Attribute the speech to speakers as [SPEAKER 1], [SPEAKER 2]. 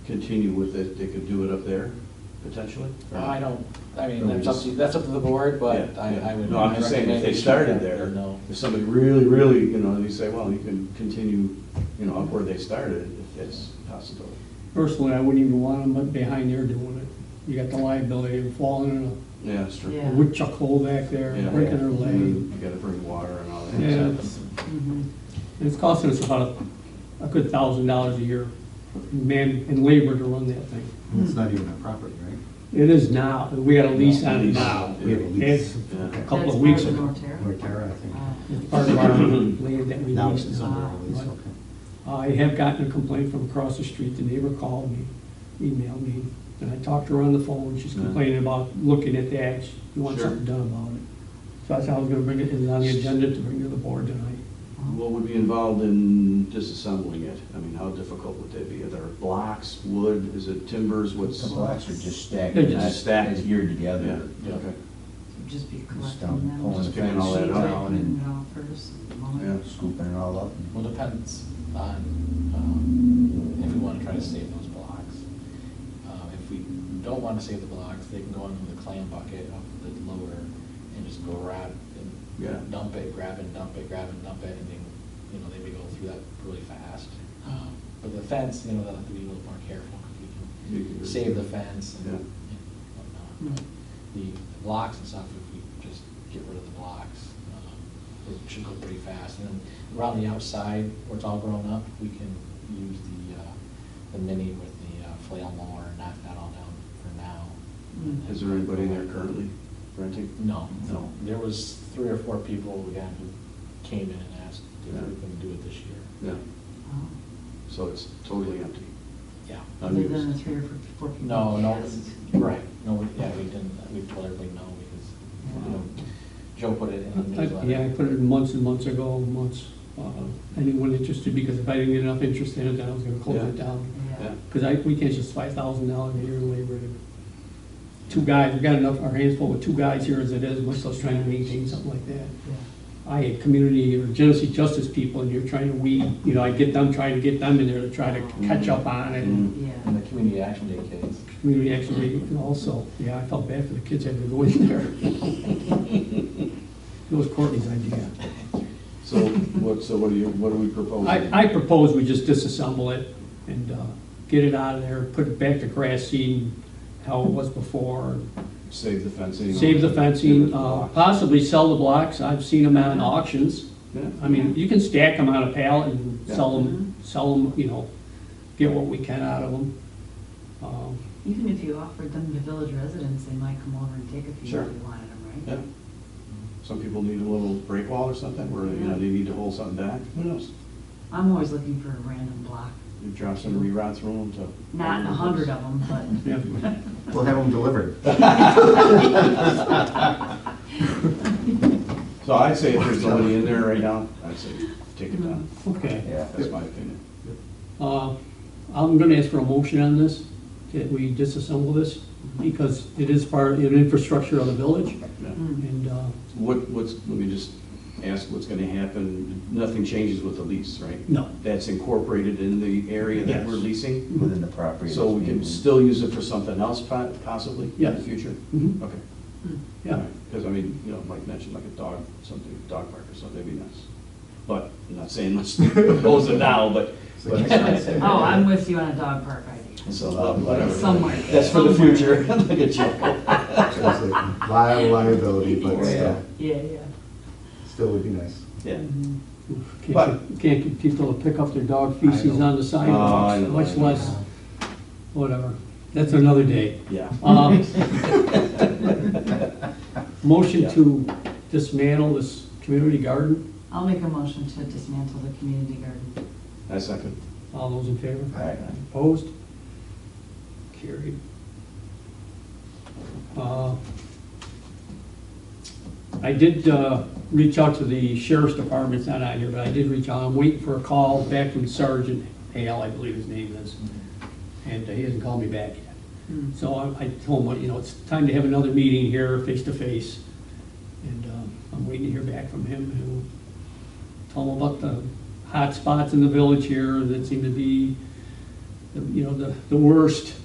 [SPEAKER 1] continue with it, they could do it up there, potentially? or not?
[SPEAKER 2] Uh, I don't, I mean,
[SPEAKER 1] No, we
[SPEAKER 2] that's up to,
[SPEAKER 1] just-
[SPEAKER 2] that's up to the board, but
[SPEAKER 1] Yeah,
[SPEAKER 2] I,
[SPEAKER 1] yeah.
[SPEAKER 2] I would.
[SPEAKER 1] No, I'm just saying, if they started there,
[SPEAKER 2] No.
[SPEAKER 1] if somebody really, really, you know, they say, well, you can continue, you know, up where they started, if that's possible.
[SPEAKER 3] Personally, I wouldn't even want them behind there doing it. You got the liability of falling in
[SPEAKER 1] Yeah, that's true.
[SPEAKER 3] a
[SPEAKER 4] Yeah.
[SPEAKER 3] woodchuck hole back there,
[SPEAKER 1] Yeah.
[SPEAKER 3] breaking their
[SPEAKER 1] And
[SPEAKER 3] leg.
[SPEAKER 1] then You gotta bring water and all that.
[SPEAKER 3] Yeah,
[SPEAKER 1] stuff.
[SPEAKER 3] it's- it's costing us about a, a good thousand dollars a year, in man, and labor to run that thing.
[SPEAKER 5] It's not even a property, right?
[SPEAKER 3] It is now, we got a lease on it
[SPEAKER 1] Lease,
[SPEAKER 3] now.
[SPEAKER 5] We have a
[SPEAKER 3] It's
[SPEAKER 5] lease.
[SPEAKER 3] a
[SPEAKER 1] yeah.
[SPEAKER 3] couple of weeks
[SPEAKER 4] That's
[SPEAKER 3] ago.
[SPEAKER 4] part of the Norterra?
[SPEAKER 5] Norterra, I think.
[SPEAKER 4] Ah.
[SPEAKER 3] It's part of our land that we
[SPEAKER 5] Now it's
[SPEAKER 3] leased.
[SPEAKER 5] under a lease,
[SPEAKER 3] But
[SPEAKER 5] okay.
[SPEAKER 3] I have gotten a complaint from across the street, the neighbor called me, emailed me, and I talked to her on the phone, she's
[SPEAKER 1] Yeah.
[SPEAKER 3] complaining about looking at that, she wants
[SPEAKER 1] Sure.
[SPEAKER 3] something done about it. So I thought I was gonna bring it in on the agenda to bring to the board tonight.
[SPEAKER 1] What would be involved in disassembling it? I mean, how difficult would that be? Are there blocks, wood, is it timbers, what's?
[SPEAKER 6] The blocks are just stacked,
[SPEAKER 3] They're
[SPEAKER 6] not
[SPEAKER 1] just stacked.
[SPEAKER 6] stacked geared
[SPEAKER 1] Yeah,
[SPEAKER 6] together.
[SPEAKER 1] okay.
[SPEAKER 4] Just be
[SPEAKER 6] Stop
[SPEAKER 4] collecting them.
[SPEAKER 6] pulling
[SPEAKER 1] Just
[SPEAKER 6] the
[SPEAKER 1] picking all that
[SPEAKER 6] fence
[SPEAKER 1] up.
[SPEAKER 6] down
[SPEAKER 4] Putting
[SPEAKER 6] and
[SPEAKER 4] it all first, at the moment.
[SPEAKER 1] Yeah.
[SPEAKER 6] scooping it all up. and-
[SPEAKER 2] Well, depends on, um, if we wanna try to save those blocks. Uh, if we don't wanna save the blocks, they can go into the clam bucket up the lower and just go grab
[SPEAKER 1] Yeah.
[SPEAKER 2] and dump it, grab and dump it, grab and dump it, and then, you know, they may go through that really fast. Um, But the fence, you know, they'll have to be a little more careful, 'cause we
[SPEAKER 1] You
[SPEAKER 2] can
[SPEAKER 1] can-
[SPEAKER 2] save the fence and
[SPEAKER 1] Yeah.
[SPEAKER 2] and whatnot. But The the blocks and stuff, if we just get rid of the blocks, um, it should go pretty fast. And then around the outside, where it's all grown up, we can use the, uh, the mini with the uh, flail mower and knock that all down for now.
[SPEAKER 4] Mm.
[SPEAKER 3] Mm-hmm.
[SPEAKER 1] Is there anybody in there currently renting?
[SPEAKER 2] No.
[SPEAKER 1] No.
[SPEAKER 2] There was three or four people, again, who came in and asked if
[SPEAKER 1] Yeah.
[SPEAKER 2] we can do it this year.
[SPEAKER 1] Yeah,
[SPEAKER 4] Oh.
[SPEAKER 1] so it's totally empty.
[SPEAKER 2] Yeah.
[SPEAKER 4] Other than the three or four people.
[SPEAKER 2] No,
[SPEAKER 4] we
[SPEAKER 2] no,
[SPEAKER 4] asked.
[SPEAKER 2] right, no, we- yeah, we didn't, we told everybody no, because, you know, Joe put it in the
[SPEAKER 3] I- I- Yeah, I
[SPEAKER 2] newsletter.
[SPEAKER 3] put it in months and months ago, months, uh, anyone interested, because if I didn't get enough interest in it, then I was gonna close it
[SPEAKER 1] Yeah.
[SPEAKER 3] down.
[SPEAKER 1] Yeah,
[SPEAKER 4] Yeah.
[SPEAKER 3] Because I, we can't just five thousand dollars a year in labor to, two guys, we got enough, our hands full with two guys here as it is, much less trying to maintain something like that. I had community or Genesee justice people, and you're trying to weed, you know, I get them, trying to get them in there to try to catch up on it. and
[SPEAKER 1] Mm.
[SPEAKER 4] Yeah.
[SPEAKER 2] And the community action day kids.
[SPEAKER 3] Community actually, and also, yeah, I felt bad for the kids having to go in there. It was Courtney's idea.
[SPEAKER 1] so what, so what are you, what are we proposing?
[SPEAKER 3] I, I propose we just disassemble it and uh, get it out of there, put it back to grass seed, how it was before,
[SPEAKER 1] Save the fencing.
[SPEAKER 3] save the fencing,
[SPEAKER 1] Yeah,
[SPEAKER 3] uh, possibly sell the blocks, I've seen them on auctions.
[SPEAKER 1] Yeah.
[SPEAKER 3] I mean, you can stack them on a pallet and sell them, sell them, you know, get what we can out of them. Um,
[SPEAKER 4] Even if you offered them to village residents, they might come over and take a few
[SPEAKER 1] Sure.
[SPEAKER 4] if you wanted them,
[SPEAKER 1] Yeah.
[SPEAKER 4] right?
[SPEAKER 1] Some people need a little break wall or something, where, you know, they need to hold something back, who knows?
[SPEAKER 4] I'm always looking for a random block,
[SPEAKER 1] You drop some reroute through them to.
[SPEAKER 4] not a hundred of them, but
[SPEAKER 3] yeah.
[SPEAKER 5] We'll have them delivered.
[SPEAKER 1] So I'd say if there's somebody in there right now, I'd say take it down,
[SPEAKER 3] Okay.
[SPEAKER 6] Yeah.
[SPEAKER 1] that's my opinion.
[SPEAKER 3] Uh, I'm gonna ask for a motion on this, that we disassemble this, because it is part of the infrastructure of the village,
[SPEAKER 1] Yeah.
[SPEAKER 4] Mm.
[SPEAKER 3] and uh,
[SPEAKER 1] What, what's, let me just ask what's gonna happen, nothing changes with the lease, right?
[SPEAKER 3] No.
[SPEAKER 1] That's incorporated in the area that we're
[SPEAKER 3] Yes. Mm-hmm.
[SPEAKER 1] leasing,
[SPEAKER 6] Within the property.
[SPEAKER 1] so we
[SPEAKER 6] that's
[SPEAKER 1] can
[SPEAKER 6] being-
[SPEAKER 1] still use it for something else po- possibly in the
[SPEAKER 3] Yes.
[SPEAKER 1] future?
[SPEAKER 3] Mhm.
[SPEAKER 1] Okay.
[SPEAKER 3] yeah,
[SPEAKER 1] Because I mean, you know, Mike mentioned like a dog, something, dog park or something, that'd be nice. But, I'm not saying let's close it now, but, but,
[SPEAKER 4] Oh, I'm with you on a dog park idea,
[SPEAKER 1] so, uh, whatever.
[SPEAKER 4] somewhere.
[SPEAKER 1] That's for the
[SPEAKER 4] somewhere.
[SPEAKER 1] future, like a joke.
[SPEAKER 5] It's a Liable liability, but still,
[SPEAKER 4] Yeah, yeah.
[SPEAKER 5] still would be nice.
[SPEAKER 1] Yeah. But- Oh,
[SPEAKER 3] can't, can't get people to pick up their dog feces on the
[SPEAKER 1] I
[SPEAKER 3] sidewalks,
[SPEAKER 1] know, I
[SPEAKER 3] much
[SPEAKER 1] know.
[SPEAKER 3] less, whatever, that's another day.
[SPEAKER 1] Yeah.
[SPEAKER 3] Um, Motion to dismantle this community garden,
[SPEAKER 4] I'll make a motion to dismantle the community garden.
[SPEAKER 1] I second.
[SPEAKER 3] all those in favor?
[SPEAKER 6] All right.
[SPEAKER 3] Opposed? Carried. Uh, I did uh, reach out to the sheriff's department, it's not out here, but I did reach out, I'm waiting for a call back from Sergeant Hale, I believe his name is, and he hasn't called me back yet. So I I told him, you know, it's time to have another meeting here, face to face, and um, I'm waiting to hear back from him, and we'll tell him about the hot spots in the village here that seem to be the- you know, the, the worst